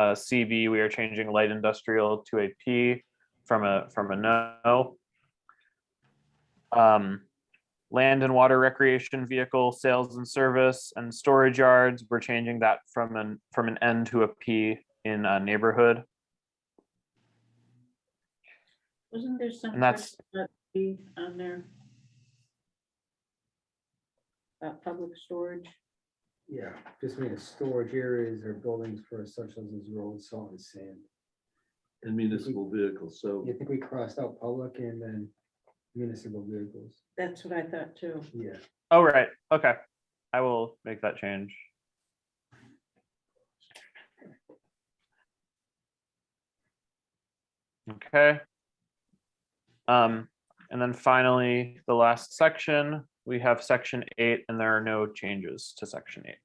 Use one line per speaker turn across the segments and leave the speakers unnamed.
Uh, CB, we are changing light industrial to a P from a, from a no. Um, land and water recreation vehicle sales and service and storage yards, we're changing that from an, from an N to a P in a neighborhood.
Wasn't there some?
And that's-
question about B On there? About public storage,
Yeah, just mean it's storage areas or buildings for such as is road, salt and sand.
and municipal vehicles, so
You think we crossed out public and then municipal vehicles?
that's what I thought too.
Yeah,
Oh, right, okay. I will make that change. Okay. Um, and then finally, the last section, we have section eight and there are no changes to section eight.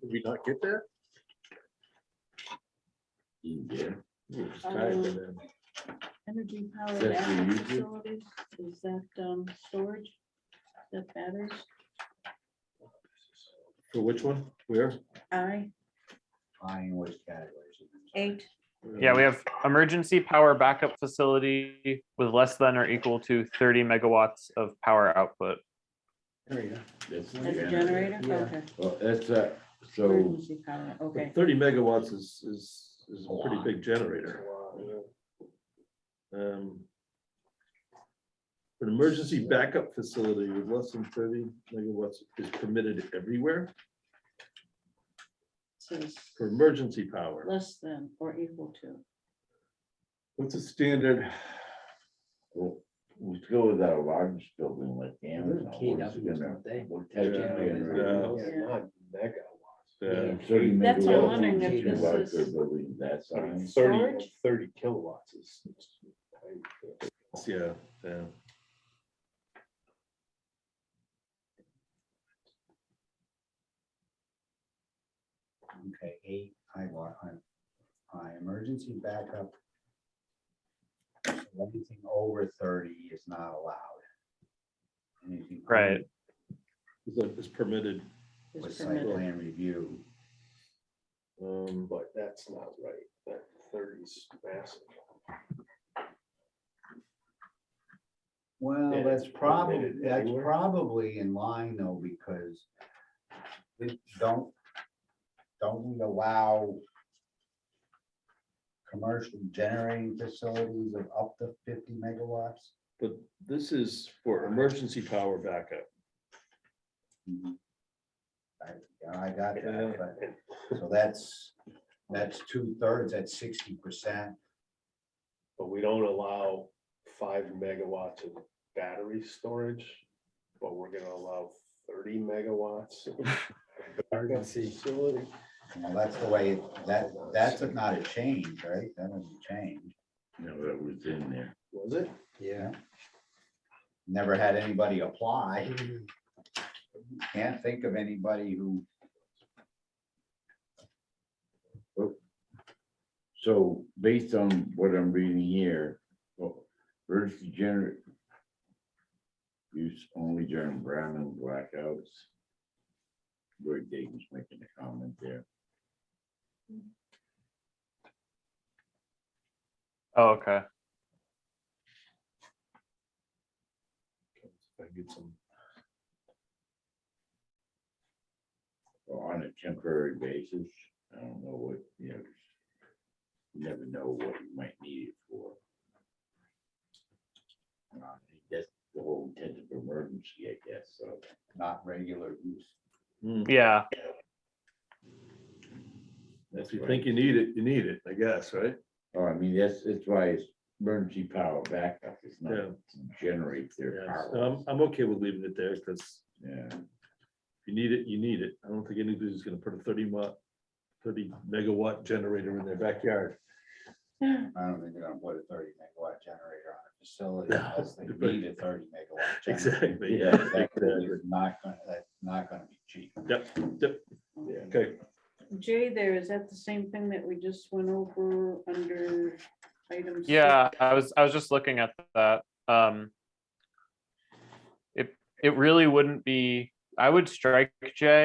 did we not get there?
Yeah.
Um, Energy power
That's what you
backup
do?
facilities, is that um storage? That matters,
For which one? Where?
I
Fine, which categories?
eight,
Yeah, we have emergency power backup facility with less than or equal to thirty megawatts of power output.
there you go.
That's
as a generator,
Yeah.
okay,
Well, that's, uh, so,
emergency power, okay,
Thirty megawatts is, is, is a pretty
Wow.
big generator. Um. An emergency backup facility with less than thirty megawatts is permitted everywhere
so it's
for emergency power.
less than or equal to.
What's a standard?
well, we go with our largest building like
They're
Amazon.
keyed
what's
up,
it gonna-
aren't they?
what type of
Yeah,
generator?
Yeah.
uh,
Thirty
That's what I'm
megawatts
wondering
is
if
too
this
large
is-
for a Building that size.
Storage?
thirty kilowatts is.
Yeah, yeah.
Okay, eight, I want, I, I, emergency backup. Anything over thirty is not allowed. Anything
Right.
Is that is permitted?
is
With site
permitted.
plan review,
Um,
But that's not right, that thirty's massive.
well,
Yeah,
that's
it's
probably,
permitted
that's
everywhere.
probably in line though, because. we Don't, don't we allow. Commercial generating facilities of up to fifty megawatts?
but this is for emergency power backup.
Mhm. I, yeah, I got
Yeah.
that, but, so that's, that's two thirds, that's sixty percent.
But we don't allow five megawatts of battery storage, but we're gonna allow thirty megawatts. of backup
Emergency.
facility.
Well, that's the way, that, that's not a change, right? That doesn't change.
No, that was in there.
Was it?
Yeah.
Never had anybody apply. Can't think of anybody who,
So based on what I'm reading here, oh, well, emergency generator. Use only during brown and blackouts. Roy Dayton's making a comment there.
Oh, okay.
If I get some.
or on a temporary basis. I don't know what, you know. You never know what you might need it for. And I think That's the whole intent of emergency, I guess, so.
not regular use.
Hmm,
Yeah,
If you think you need it, you need it, I guess, right?
Oh, I mean, that's, that's why it's emergency power backup, it's not
Yeah. um,
to generate their
Yeah, so
power.
I'm, I'm okay with leaving it there, because if
Yeah,
you need it, you need it. I don't think anybody's gonna put a thirty watt, thirty megawatt generator in their backyard.
I don't think they're gonna put a thirty megawatt generator on a facility
No,
unless they
but-
need a thirty megawatt. generator.
Exactly,
Yeah,
yeah.
That
exactly.
is Not gonna, that's not gonna be cheap.
Okay,
Jay there, is that the same thing that we just went over under items?
yeah, I was, I was just looking at that, um. It, it really wouldn't be I would strike J